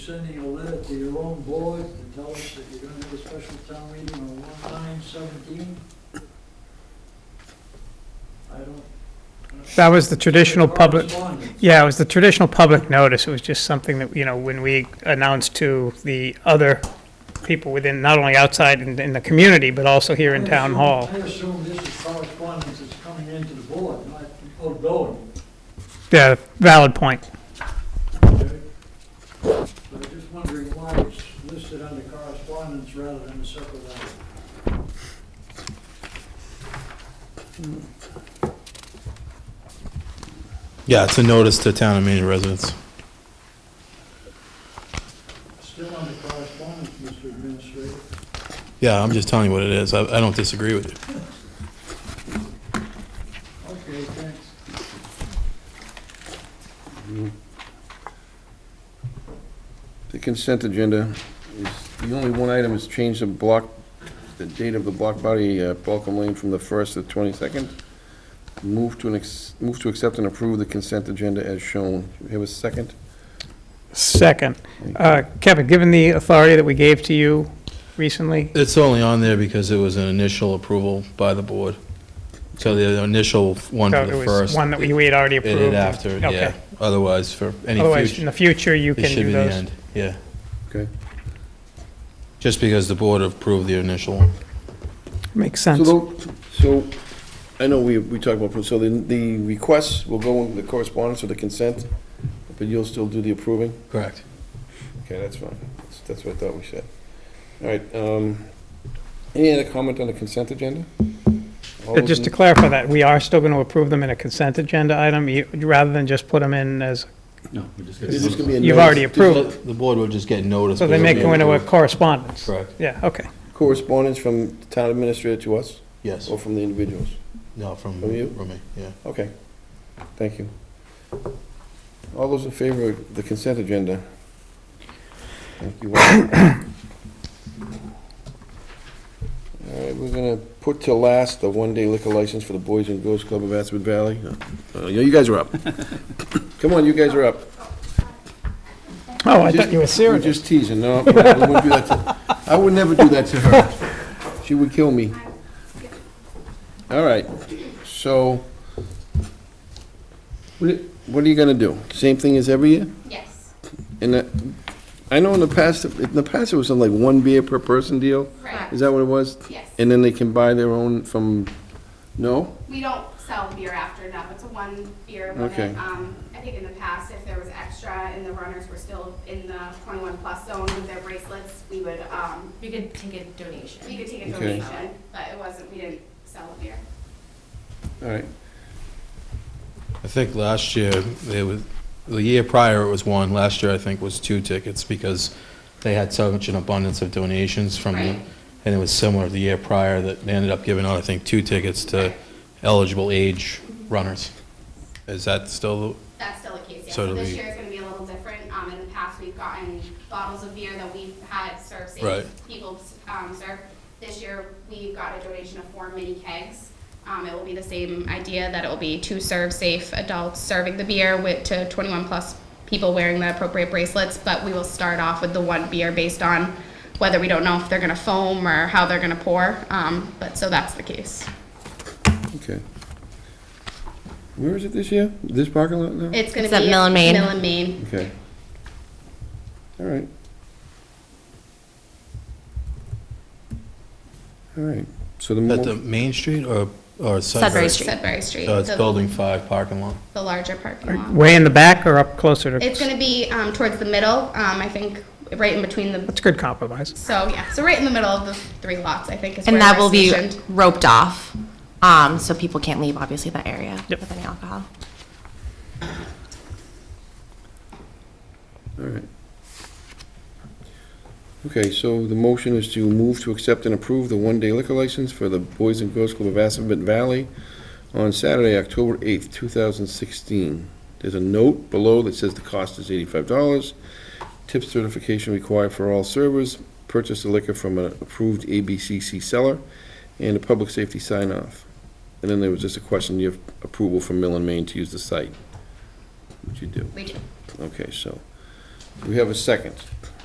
sending a letter to your own board to tell us that you're gonna have a special town meeting on one nine seventeen? I don't. That was the traditional public, Correspondence. yeah, it was the traditional public notice. It was just something that, you know, when we announced to the other people within, not only outside in, in the community, but also here in I town assume- hall. I assume this is correspondence that's coming into the board, not outgoing. Yeah, valid point. okay? So I'm just wondering why it's listed under correspondence rather than a separate letter. Yeah, it's a notice to town and Maine residents. Still under correspondence, Mr. Administrator. Yeah, I'm just telling you what it is. I, I don't disagree with you. Okay, thanks. The consent agenda is, the only one item is change the block, the date of the block body, uh, Balcom Lane from the 1st to the 22nd. Move to an, ex- move to accept and approve the consent agenda as shown. Do we have a second? Second, uh, Kevin, given the authority that we gave to you recently, It's only on there because it was an initial approval by the board. So the initial one so for it the was first. one that we we had already It approved. did after, Okay. yeah. Otherwise, for any Otherwise, in future, the future, you it can should do be the those. end, yeah. Okay. Just because the board approved the initial one. Makes So, sense. tho- so, I know we, we talked about, so the, the requests will go in the correspondence or the consent, but you'll still do the approving? Correct. Okay, that's fine. That's- That's what I thought we said. All right, um, any other comment on the consent agenda? All Uh, those Just in- to clarify that, we are still going to approve them in a consent agenda item, you- rather than just put them in as, No, we're just Is this gonna be a you've notice? already approved. The board would just get notice. So they but may it'll go be into a approved. correspondence. Correct, Yeah, okay. Correspondence from the town administrator to us yes. or from the individuals? No, from, Oh. From you? from me, yeah. Okay, thank you. All those in favor of the consent agenda? Thank you. All right, we're gonna put to last the one-day liquor license for the Boys and Girls Club of Aspen Valley. Uh, You guys are up. Come on, you guys are up. Oh, I Just- thought you were serious. You're just teasing, no. I wouldn't do that to- I would never do that to her. She would kill me. All right, so, what are- what are you gonna do? Same thing as every year? Yes, And that- I know in the past, in the past, it was something like one beer per person deal? right, Is that what it was? yes. And then they can buy their own from, no? We don't sell beer after, no, it's a one beer limit. Okay. Um, I think in the past, if there was extra and the runners were still in the twenty-one plus zone with their bracelets, we would, um, You could take a donation. we could take a Okay. donation, but it wasn't, we didn't sell a beer. All right, I think last year, it was, the year prior it was one, last year I think was two tickets because they had such an abundance of donations from Right. them. And it was similar the year prior that they ended up giving out, I think, two tickets to eligible age runners. Is that still, That's still the case, yes. So So do this we- year is gonna be a little different. Um, in the past, we've gotten bottles of beer that we've had serve Right. safe, people, um, serve. This year, we got a donation of four mini kegs. Um, it will be the same idea that it will be two serve safe adults serving the beer with, to twenty-one plus people wearing the appropriate bracelets, but we will start off with the one beer based on whether we don't know if they're gonna foam or how they're gonna pour, um, but, so that's the case. okay. Where is it this year? This parking lot now? It's gonna It's at be. Mill and Main. Mill and Main. Okay. All right. All right, so the, at the mo- Main Street or, or Sudbury? Sudbury Street. Sudbury Street. So it's the- Building 5 parking lot. The larger parking lot. Way in the back or up closer to? It's gonna be um, towards the middle, um, I think, right in between the, That's a good compromise. so, yeah, so right in the middle of the three lots, I think, is where And that we're will be stationed. roped off, um, so people can't leave, obviously, that area Yep. with any alcohol. all right. Okay, so the motion is to move to accept and approve the one-day liquor license for the Boys and Girls Club of Assabet Valley on Saturday, October 8th, 2016. There's a note below that says the cost is $85. Tip certification required for all servers. Purchase the liquor from an approved ABCC seller and a public safety sign-off. And then there was just a question, you have approval from Mill and Main to use the site, which you do. We do. Okay, so Do we have a second?